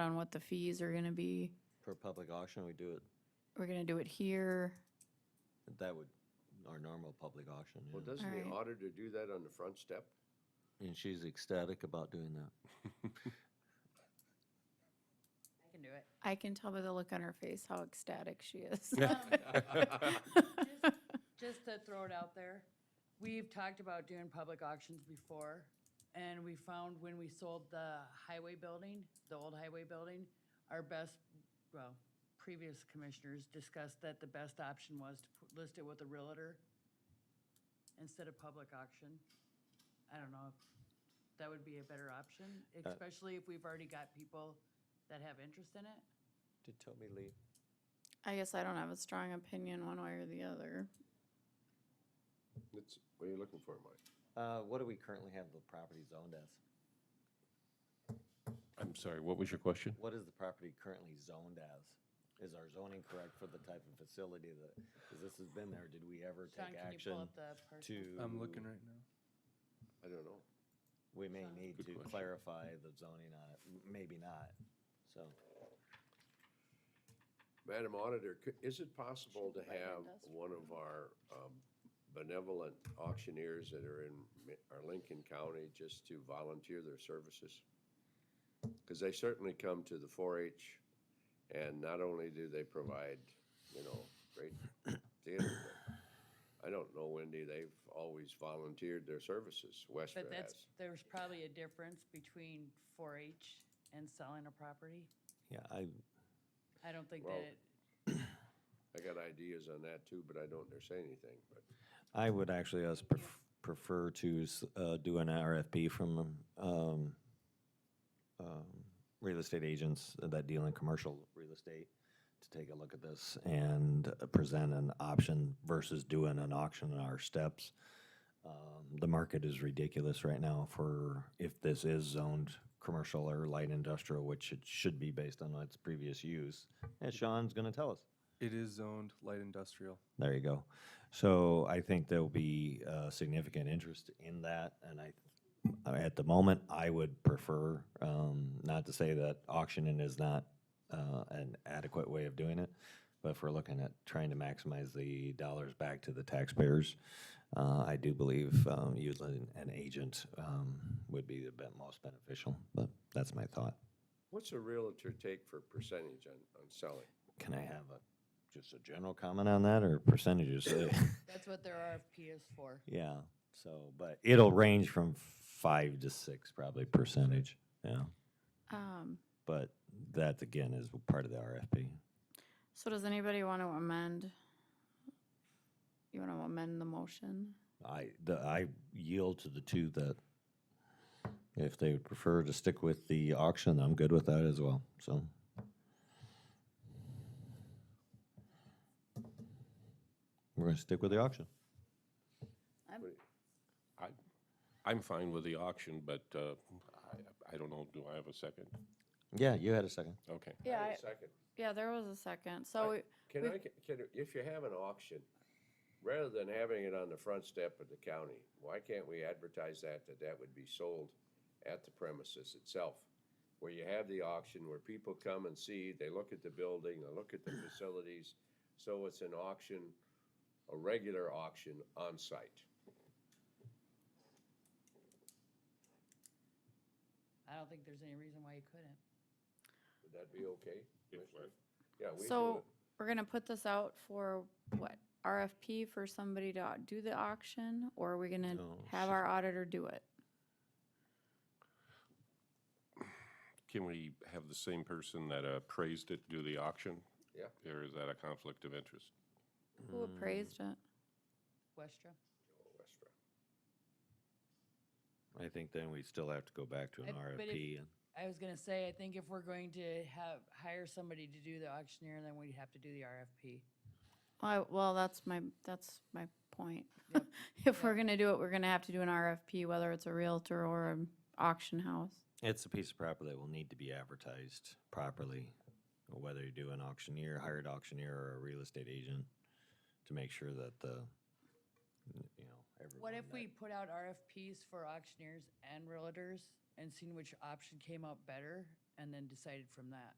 on what the fees are gonna be. per public auction, we do it, We're gonna do it here. that would, our normal public auction. Well, yeah. doesn't the Alright. auditor do that on the front step? And she's ecstatic about doing that. I can do it. I can tell by the look on her face how ecstatic she is. Just to throw it out there, we've talked about doing public auctions before, and we found when we sold the highway building, the old highway building, our best, well, previous commissioners discussed that the best option was to put- list it with a realtor instead of public auction. I don't know if that would be a better option, Uh, especially if we've already got people that have interest in it. Did Toby leave? I guess I don't have a strong opinion one way or the other. That's, what are you looking for, Mike? Uh, what do we currently have the property zoned as? I'm sorry, what was your question? What is the property currently zoned as? Is our zoning correct for the type of facility that, because this has been there, did we ever Sean, take can you action pull up the parcel? to? I'm looking right now. I don't know. We may need Good to question. clarify the zoning on it, M- maybe not, so. Madam Auditor, cou- is it possible to Should we write have industrial? one of our um, benevolent auctioneers that are in Mi- our Lincoln County just to volunteer their services? Because they certainly come to the 4-H, and not only do they provide, you know, great theater, but I don't know, Wendy, they've always volunteered their services, Westford But has. that's, there's probably a difference between 4-H and selling a property. Yeah, I, I don't think that, Well- it- I got ideas on that too, but I don't dare say anything, but. I would actually us pref- prefer to s- uh, do an RFP from um, um, real estate agents that deal in commercial real estate to take a look at this and uh, present an option versus doing an auction in our steps. Um, The market is ridiculous right now for if this is zoned commercial or light industrial, which it should be based on its previous use. And Sean's going to tell us. It is zoned light industrial. There you go. So I think there'll be uh, significant interest in that, and I, I- at the moment, I would prefer, um, not to say that auctioning is not uh, an adequate way of doing it, but if we're looking at trying to maximize the dollars back to the taxpayers, uh, I do believe um, utilizing an agent um, would be the be- most beneficial, but that's my thought. What's a realtor take for percentage on, on selling? Can I have a, just a general comment on that, or percentages? that's what their RFP is for. Yeah. So, but it'll range from five to six, probably percentage. Yeah. Um, But that again is part of the RFP. so does anybody want to amend? You want to amend the motion? I the, I yield to the two that if they would prefer to stick with the auction, I'm good with that as well. So we're gonna stick with the auction. I'm fine with the auction, but uh, I I don't know, do I have a second? Yeah, you had a second. Okay. Yeah, Wait I, a Second, yeah, there was a second. So we, can I, can, if you have an auction, rather than having it on the front step of the county, why can't we advertise that, that that would be sold at the premises itself? Where you have the auction, where people come and see, they look at the building, they look at the facilities, so it's an auction, a regular auction on site. I don't think there's any reason why you couldn't. Would that be okay? Commissioner? Yeah, we do so it. we're gonna put this out for what? RFP for somebody to do the auction, or are we gonna No, have our auditor do it? Can we have the same person that appraised it do the auction? Yeah. Or is that a conflict of interest? Who appraised it? Westra? Mm, I think then we still have to go back to an I- but if- RFP. and- I was gonna say, I think if we're going to have, hire somebody to do the auctioneer, then we'd have to do the RFP. Well, I- well, that's my, that's my point. If we're gonna do it, we're gonna have to do an RFP, whether it's a Realtor or an auction house. It's a piece of property that will need to be advertised properly, whether you do an auctioneer, hired auctioneer, or a real estate agent, to make sure that the, you know, everyone. What if that- we put out RFPs for auctioneers and realtors and seen which option came out better and then decided from that.